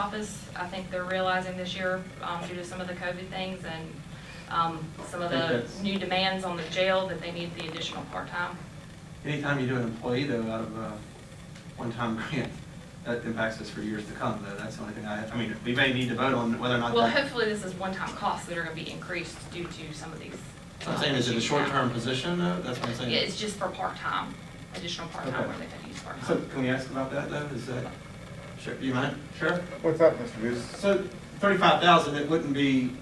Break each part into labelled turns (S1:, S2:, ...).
S1: office. I think they're realizing this year, um, due to some of the COVID things and, um, some of
S2: I think
S1: the
S2: that's-
S1: new demands on the jail that they need the additional part-time.
S2: Anytime you do an employee though out of a one-time grant, that impacts us for years to come though. That's the only thing I, I mean, we may need to vote on whether or not
S1: Well,
S2: that.
S1: hopefully this is one-time costs that are gonna be increased due to some of these. uh,
S2: So I'm saying is it a
S1: issues now.
S2: short-term position though? That's what I'm saying.
S1: Yeah, it's just for part-time, additional part-time
S2: Okay.
S1: where they could use part-time.
S2: So can we ask about that though? Is that, sure, you mind? Sure.
S3: What's up, Mr. Goose?
S2: So thirty-five thousand, it wouldn't be,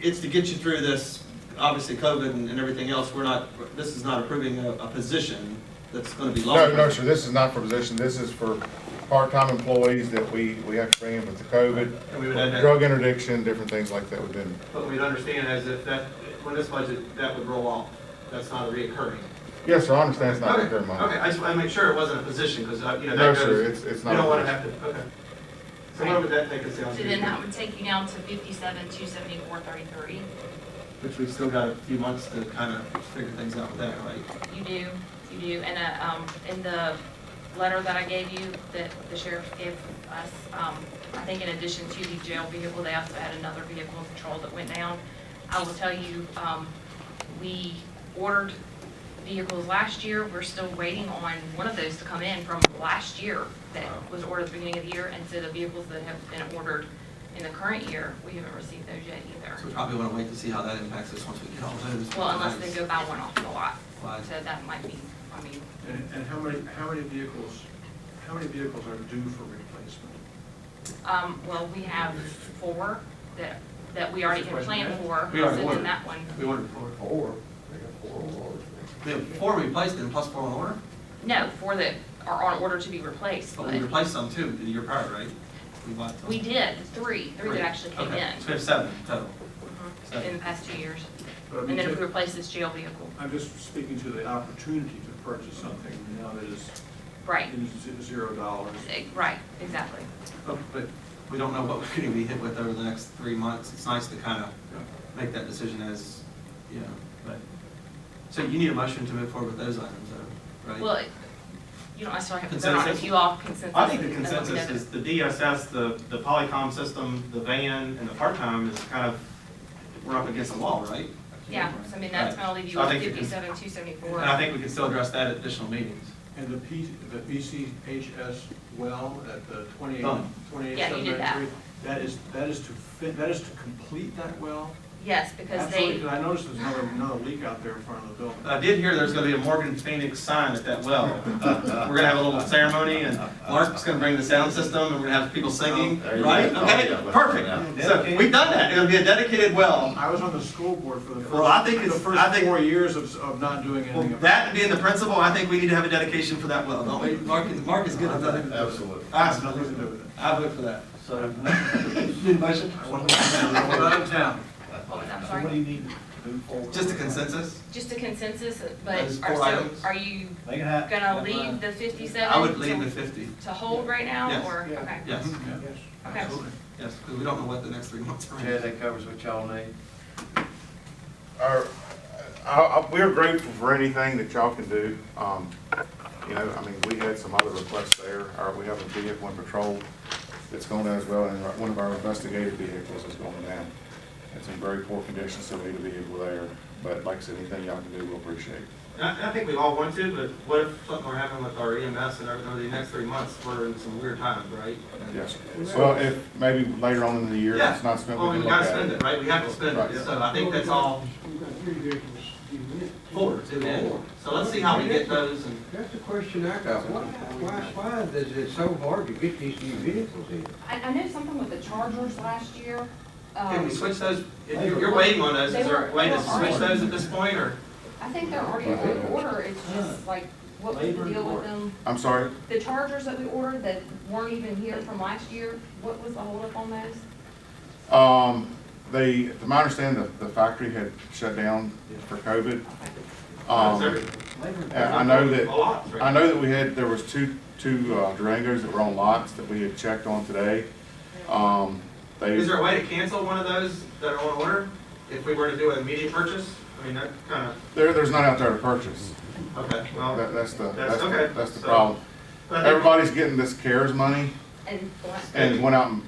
S2: it's to get you through this, obviously COVID and and everything else. We're not, this is not approving a, a position that's gonna be long.
S3: No, no, sir, this is not for position, this is for part-time employees that we, we have to bring in with the
S2: And we would add that-
S3: COVID, drug interdiction, different things like that within.
S2: But we'd understand as if that, when this budget, that would roll off. That's not a reoccurring.
S3: Yes, sir, I understand it's not
S2: Okay,
S3: very
S2: okay,
S3: much.
S2: I just want to make sure it wasn't a position, because, you know,
S3: No,
S2: that
S3: sir,
S2: goes,
S3: it's- it's
S2: we
S3: not
S2: don't
S3: a
S2: want to have to, okay. So where would that take us down
S1: So then that
S2: to?
S1: would take you down to fifty-seven, two seventy-four, thirty-three.
S2: Which we've still got a few months to kind of figure things out with that, right?
S1: You do, you do, and, uh, um, in the letter that I gave you, that the sheriff gave us, um, I think in addition to the jail vehicle, they also had another vehicle in patrol that went down. I will tell you, um, we ordered vehicles last year, we're still waiting on one of those to come in from last year that was ordered at the beginning of the year, and so the vehicles that have been ordered in the current year, we haven't received those yet either.
S2: So we probably want to wait to see how that impacts us once we get all those.
S1: Well, unless they go buy one off the lot,
S2: Right.
S1: so that might be, I mean,
S4: And, and how many, how many vehicles, how many vehicles are due for replacement?
S1: um, well, we have four that, that we already had planned for,
S2: We already
S1: so
S2: ordered.
S1: then that one.
S2: We ordered four.
S3: Or, or, or.
S2: We have four replaced and plus four on order?
S1: No, four that are on order to be replaced,
S2: But Oh, we
S1: but
S2: replaced some too, the year prior, right? We bought some.
S1: we did, three, three that actually came
S2: Okay,
S1: in
S2: So we have seven total.
S1: mhm, in the past two years.
S4: But I
S1: And
S4: mean,
S1: then if
S4: ju-
S1: we replace this jail vehicle,
S4: I'm just speaking to the opportunity to purchase something now that is
S1: right,
S4: is zero dollars.
S1: eh, right, exactly.
S2: But Oh, but we don't know what we're going to be hit with over the next three months. It's nice to kind of make that decision as, you know, but, so you need a motion to move forward with those items, though, right?
S1: Well, it- you don't necessarily have to vote on it,
S2: Consensus?
S1: if you all consensus.
S5: I think the
S1: then let me know
S5: consensus
S1: that-
S5: is the DSS, the, the Polycom system, the van, and the part-time is kind of, we're up against the wall, right?
S1: Yeah, so I mean, that's gonna leave you
S2: So I
S1: with
S2: think the cons-
S1: fifty-seven, two seventy-four.
S2: And I think we can still address that at additional meetings.
S4: And the P, the BCHS well at the twenty-eight,
S5: Oh.
S2: Done.
S4: twenty-eight
S1: Yeah, you
S4: seven
S1: did that.
S4: ninety-three? That is, that is to fit, that is to complete that well?
S1: Yes, because
S4: Absolutely,
S1: they,
S4: 'cause I noticed there's another, another leak out there in front of the building.
S5: I did hear there's gonna be a Morgan Phoenix sign at that well. Uh, We're gonna have a little ceremony, and Mark's gonna bring the sound system, and we're gonna have people singing,
S6: There you
S5: right?
S6: go.
S5: Okay,
S6: Oh, yeah.
S5: perfect. So we've done that. It'll be a dedicated well.
S4: I was on the school board for the
S5: Well, I
S4: first,
S5: think
S4: the
S5: it's- I
S4: first
S5: think-
S4: four years of, of not doing
S5: Well,
S4: anything. about it.
S5: that being the principal, I think we need to have a dedication for that well, don't we?
S2: Mark is, Mark is good at that.
S6: Absolutely.
S5: I
S4: Has nothing to do with it.
S2: I vote for that.
S7: So,
S2: Need a motion?
S4: Well, out of town.
S1: I'm
S7: so
S1: sorry.
S7: what do you need to move forward?
S2: Just a consensus?
S1: Just a consensus, but
S2: Those
S1: are,
S2: four
S1: so,
S2: items?
S1: are you
S7: They can have.
S1: gonna leave the fifty-seven?
S2: I would leave the fifty,
S1: To hold right now,
S2: Yes.
S1: or,
S4: Yeah.
S1: okay,
S2: yes,
S1: okay.
S2: yes, because we don't know what the next three months are.
S6: Jay, that covers what y'all need?
S3: Our, I, I, we're grateful for anything that y'all can do. Um, you know, I mean, we had some other requests there, or we have a vehicle in patrol that's going down as well, and one of our investigative vehicles is going down. It's in very poor condition, so we need a vehicle there, but like I said, anything y'all can do, we'll appreciate.
S2: I, I think we all want to, but what if something were happening with our EMS and over the next three months, we're in some weird times, right?
S3: Yes. Well, if, maybe later on in the year,
S2: Yeah.
S3: it's not spent, we
S2: Well, we
S3: can look
S2: gotta
S3: at
S2: spend
S3: it.
S2: it, right? We have to spend
S3: Right.
S2: it, so I think that's all
S8: We've got three vehicles due in.
S2: forward to the end. So let's see how we get those and.
S8: That's the question I got. Why, why, why is it so hard to get these new vehicles in?
S1: I, I know something with the Chargers last year,
S2: Can
S1: um,
S2: we switch those, if you're, you're waiting on those, is there a way to switch those at this point, or?
S1: I think they're already on order, it's just like, what was the deal with them?
S3: I'm sorry,
S1: The Chargers that we ordered that weren't even here from last year, what was the holdup on those?
S3: um, they, to my understanding, the, the factory had shut down for COVID.
S1: Okay.
S3: Um,
S2: Is there-
S3: and I know that.
S2: A lot, right?
S3: I know that we had, there was two, two uh, Durangos that were on lots that we had checked on today. Um, they,
S2: Is there a way to cancel one of those that are on order, if we were to do an immediate purchase? I mean, that kind of,
S3: there, there's none out there to purchase.
S2: okay, well.
S3: That, that's the,
S2: That's
S3: that's,
S2: okay.
S3: the- that's the
S2: So-
S3: problem.
S2: I think-
S3: Everybody's getting this CARES money
S1: And the last-
S3: and went out and